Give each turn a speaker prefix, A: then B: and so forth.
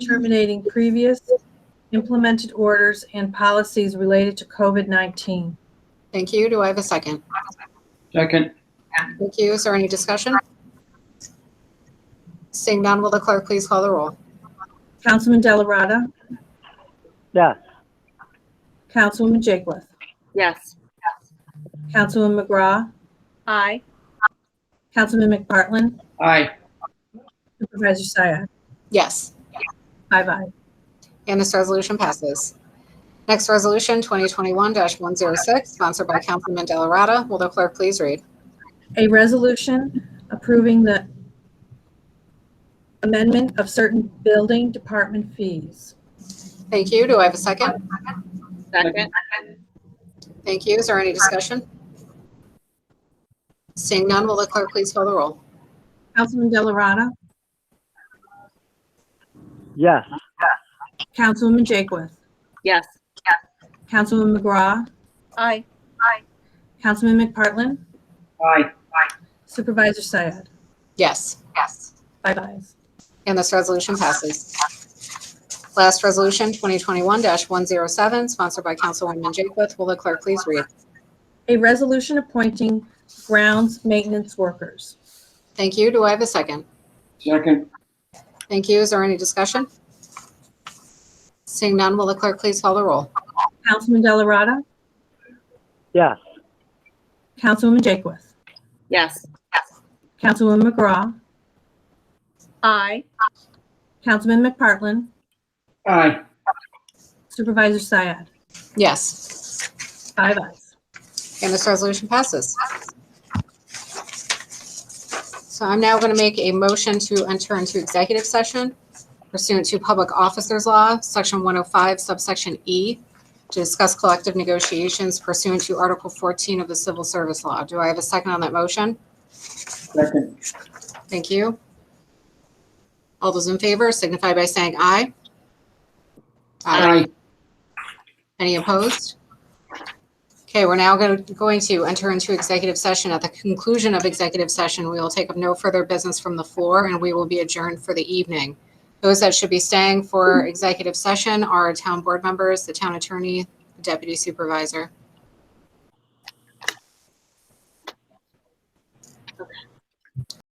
A: terminating previous implemented orders and policies related to COVID-19.
B: Thank you. Do I have a second?
C: Second,
B: Thank you. Is there any discussion? Seeing none, will the clerk please call the roll?
A: Councilman Delarada.
D: yes,
A: Councilwoman Jakewith.
E: Yes.
A: Councilman McGraw.
E: Aye.
A: Councilman McPartlin.
C: aye.
A: Supervisor Syed.
B: Yes,
A: Five ayes.
B: and this resolution passes. Next resolution, 2021-106, sponsored by Councilman Delarada. Will the clerk please read?
A: A resolution approving the amendment of certain building department fees.
B: Thank you. Do I have a second?
E: Second.
B: Thank you. Is there any discussion? Seeing none, will the clerk please call the roll?
A: Councilman Delarada.
D: yes,
A: Councilwoman Jakewith.
E: Yes.
A: Councilman McGraw.
E: Aye.
A: Councilman McPartlin.
C: Aye.
A: Supervisor Syed.
B: Yes, yes.
A: Five ayes.
B: And this resolution passes. Last resolution, 2021-107, sponsored by Councilwoman Jaketh. Will the clerk please read?
A: A resolution appointing grounds maintenance workers.
B: Thank you. Do I have a second?
C: Second,
B: Thank you. Is there any discussion? Seeing none, will the clerk please call the roll?
A: Councilman Delarada.
D: yes,
A: Councilwoman Jakewith.
E: Yes.
A: Councilwoman McGraw.
E: Aye.
A: Councilman McPartlin.
C: aye.
A: Supervisor Syed.
B: Yes,
A: Five ayes.
B: and this resolution passes. So I'm now going to make a motion to enter into executive session pursuant to Public Officers Law, Section 105, subsection E, to discuss collective negotiations pursuant to Article 14 of the Civil Service Law. Do I have a second on that motion?
C: Second,
B: Thank you. All those in favor signify by saying aye.
C: aye.
B: Any opposed? Okay, we're now go- going to enter into executive session. At the conclusion of executive session, we will take up no further business from the floor, and we will be adjourned for the evening. Those that should be staying for executive session are town board members, the town attorney, the deputy supervisor.